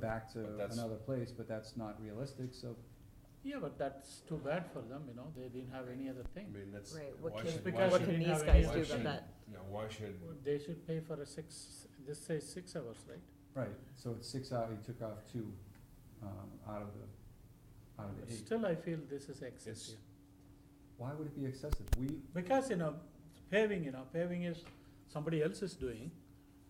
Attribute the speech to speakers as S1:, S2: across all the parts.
S1: back to
S2: But that's-
S1: another place, but that's not realistic, so
S3: Yeah, but that's too bad for them, you know, they didn't have any other
S2: I
S3: thing.
S2: mean, that's.
S4: Right, what
S2: why
S4: can,
S2: should-
S3: Because
S2: why
S4: what
S2: should-
S3: you
S4: can
S3: didn't
S4: these
S3: have
S4: guys
S3: any
S4: do
S2: option.
S4: about that?
S2: Yeah, why should,
S3: They should pay for a six, this says six hours, right?
S1: right, so it's six out, he took off two um, out of the out of
S3: But
S1: the eight.
S3: Still, I feel this
S2: It's-
S3: is excessive.
S1: Why would it be excessive? We
S3: Because, you know, paving, you know, paving is, somebody else is doing,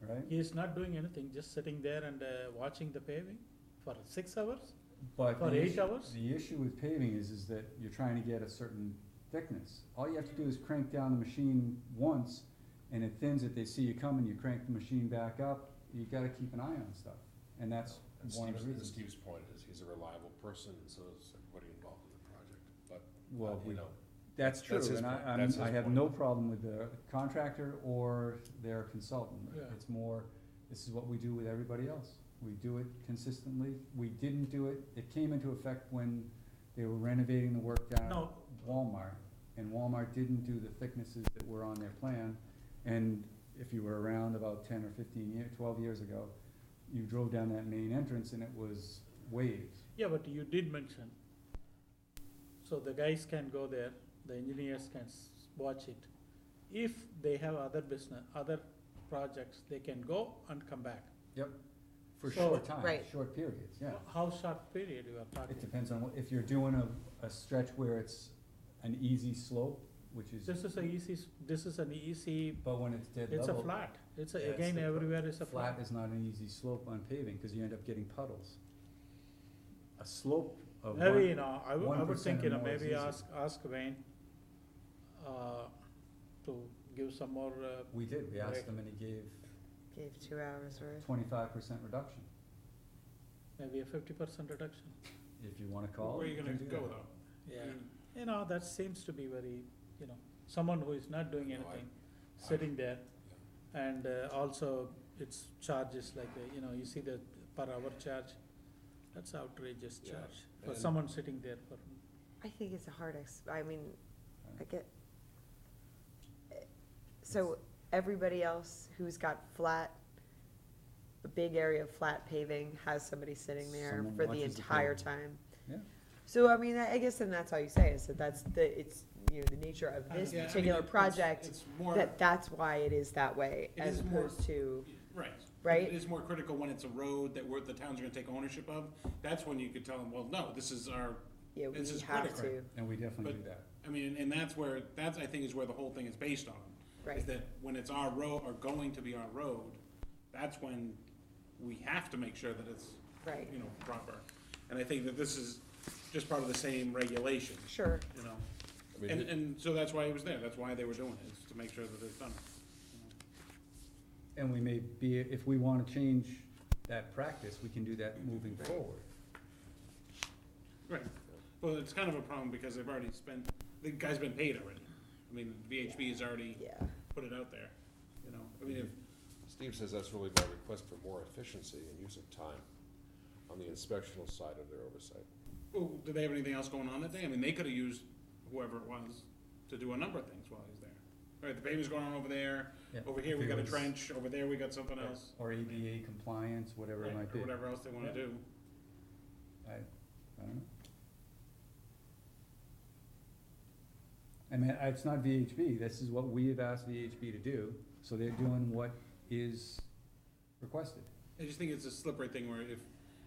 S1: right,
S3: he is not doing anything, just sitting there and uh, watching the paving for six hours?
S1: but
S3: For
S1: the
S3: eight
S1: issue-
S3: hours?
S1: The issue with paving is is that you're trying to get a certain thickness. All you have to do is crank down the machine once, and it thins it. They see you coming, you crank the machine back up. You got to keep an eye on stuff, and that's
S2: and
S1: one of
S2: Steve's,
S1: the
S2: and
S1: reasons.
S2: Steve's point is, he's a reliable person, and so is everybody involved in the project, but,
S1: well,
S2: but,
S1: we
S2: you know,
S1: That's true,
S2: That's his
S1: and I,
S2: point.
S1: I'm,
S2: That's
S1: I
S2: his
S1: have
S2: point.
S1: no problem with the contractor or their consultant.
S3: Yeah.
S1: It's more, this is what we do with everybody else. We do it consistently. We didn't do it, it came into effect when they were renovating the work down
S3: No.
S1: at Walmart. And Walmart didn't do the thicknesses that were on their plan. And if you were around about ten or fifteen year, twelve years ago, you drove down that main entrance and it was waves.
S3: Yeah, but you did mention, so the guys can go there, the engineers can s- watch it. If they have other business, other projects, they can go and come back.
S1: For
S3: So-
S1: short time,
S4: Right.
S1: short periods, yeah.
S3: How short period you are
S1: It
S3: talking?
S1: depends on, what- if you're doing a, a stretch where it's an easy slope, which is,
S3: This is a easy, s- this is an easy,
S1: but when it's dead
S3: it's a
S1: level,
S3: flat, it's
S1: Yeah,
S3: a,
S1: it's
S3: again,
S1: the pro-
S3: everywhere is a
S1: flat
S3: flat.
S1: is not an easy slope on paving, cause you end up getting puddles. A slope of
S3: Maybe, you
S1: one,
S3: know, I would, I would
S1: 1%
S3: think, you
S1: or
S3: know,
S1: more is
S3: maybe
S1: easy.
S3: ask, ask Wayne, uh, to give some more, uh,
S1: we did, we asked
S3: Right.
S1: them and he gave
S4: Gave two hours worth.
S1: twenty-five percent reduction,
S3: maybe a fifty percent reduction.
S1: if you wanna call. it, you can do that.
S3: Yeah, you know, that seems to be very, you know, someone who is not doing
S2: No, I-
S3: anything, sitting there. And uh, also, it's charges like, uh, you know, you see the per hour charge, that's outrageous
S2: Yeah,
S3: charge for
S2: and-
S3: someone sitting there for,
S4: I think it's a hard ex, I mean, I
S1: Right.
S4: get. So everybody else who's got flat, a big area of flat paving, has somebody sitting there
S1: Someone
S4: for the
S1: watches the
S4: entire
S1: paving.
S4: time.
S1: Yeah.
S4: So I mean, I I guess then that's all you say is that that's the, it's, you know, the nature of this
S5: Yeah, I mean,
S4: particular
S5: it's-
S4: project,
S5: It's more,
S4: that that's why it is that way
S5: It
S4: as
S5: is more-
S4: opposed to,
S5: right.
S4: right?
S5: It is more critical when it's a road that we're, the town's gonna take ownership of. That's when you could tell them, well, no, this is our,
S4: yeah, we
S5: this is
S4: have
S5: critical.
S4: to,
S1: And we definitely
S5: But-
S1: do that.
S5: I mean, and that's where, that's, I think, is where the whole thing is based on.
S4: right.
S5: Is that when it's our road, or going to be our road, that's when we have to make sure that it's,
S4: Right.
S5: you know, proper. And I think that this is just part of the same regulation,
S4: Sure,
S5: you know?
S2: I mean,
S5: And,
S2: it-
S5: and so that's why it was there. That's why they were doing it, is to make sure that it's done.
S1: And we may be, if we wanna change that practice, we can do that moving
S4: Right.
S1: forward.
S5: Right. Well, it's kind of a problem because they've already spent, the guy's been paid already. I mean, VHB has already
S4: yeah,
S5: put it out there, you know, I mean, if,
S2: Steve says that's really my request for more efficiency and use of time on the inspectional side of their oversight.
S5: well, do they have anything else going on that day? I mean, they could've used whoever it was to do a number of things while he's there. All right, the paving's going on over there,
S1: Yeah.
S5: over here we
S1: If it
S5: got a
S1: was-
S5: trench, over there we got something else.
S1: Or ADA compliance, whatever
S5: Right,
S1: it might
S5: Or
S1: be,
S5: whatever else they wanna
S1: Yeah.
S5: do.
S1: I, I don't know. I mean, I- it's not VHB, this is what we have asked VHB to do, so they're doing what is requested.
S5: I just think it's a slippery thing where if,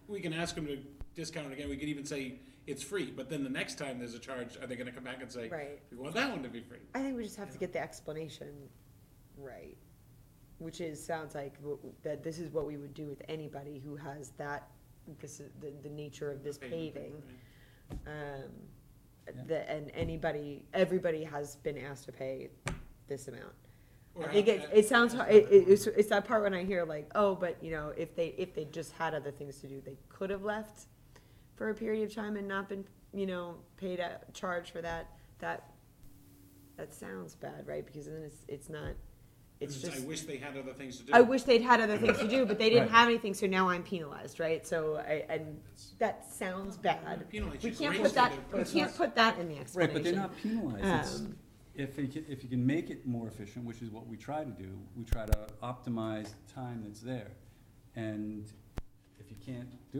S5: we can ask them to discount it again, we could even say it's free, but then the next time there's a charge, are they gonna come back and say,
S4: right.
S5: we want that one to be free?
S4: I think we just have to
S5: Yeah.
S4: get the explanation right, which is, sounds like w- that this is what we would do with anybody who has that, this is the, the nature of this paving.
S5: right?
S4: Um,
S1: Yeah.
S4: the, and anybody, everybody has been asked to pay this amount.
S5: Or
S4: It
S5: have-
S4: gets, it sounds,
S5: have-
S4: it, it- it's, it's that part when I hear like, oh, but you know, if they, if they just had other things to do, they could have left for a period of time and not been, you know, paid a charge for that, that, that sounds bad, right? Because then it's, it's not, it's
S5: It's, I
S4: just,
S5: wish they had other things to do.
S4: I wish they'd had other things to do, but they didn't
S1: Right.
S4: have anything, so now I'm penalized, right? So I, and
S2: It's-
S4: that sounds bad.
S5: Penalize,
S4: We
S5: just
S4: can't
S5: raise
S4: put that,
S5: their
S4: we
S5: prices.
S4: can't put that in the
S1: Right,
S4: explanation.
S1: but they're not penalized,
S4: Um,
S1: if you can, if you can make it more efficient, which is what we try to do, we try to optimize the time that's there. And if you can't do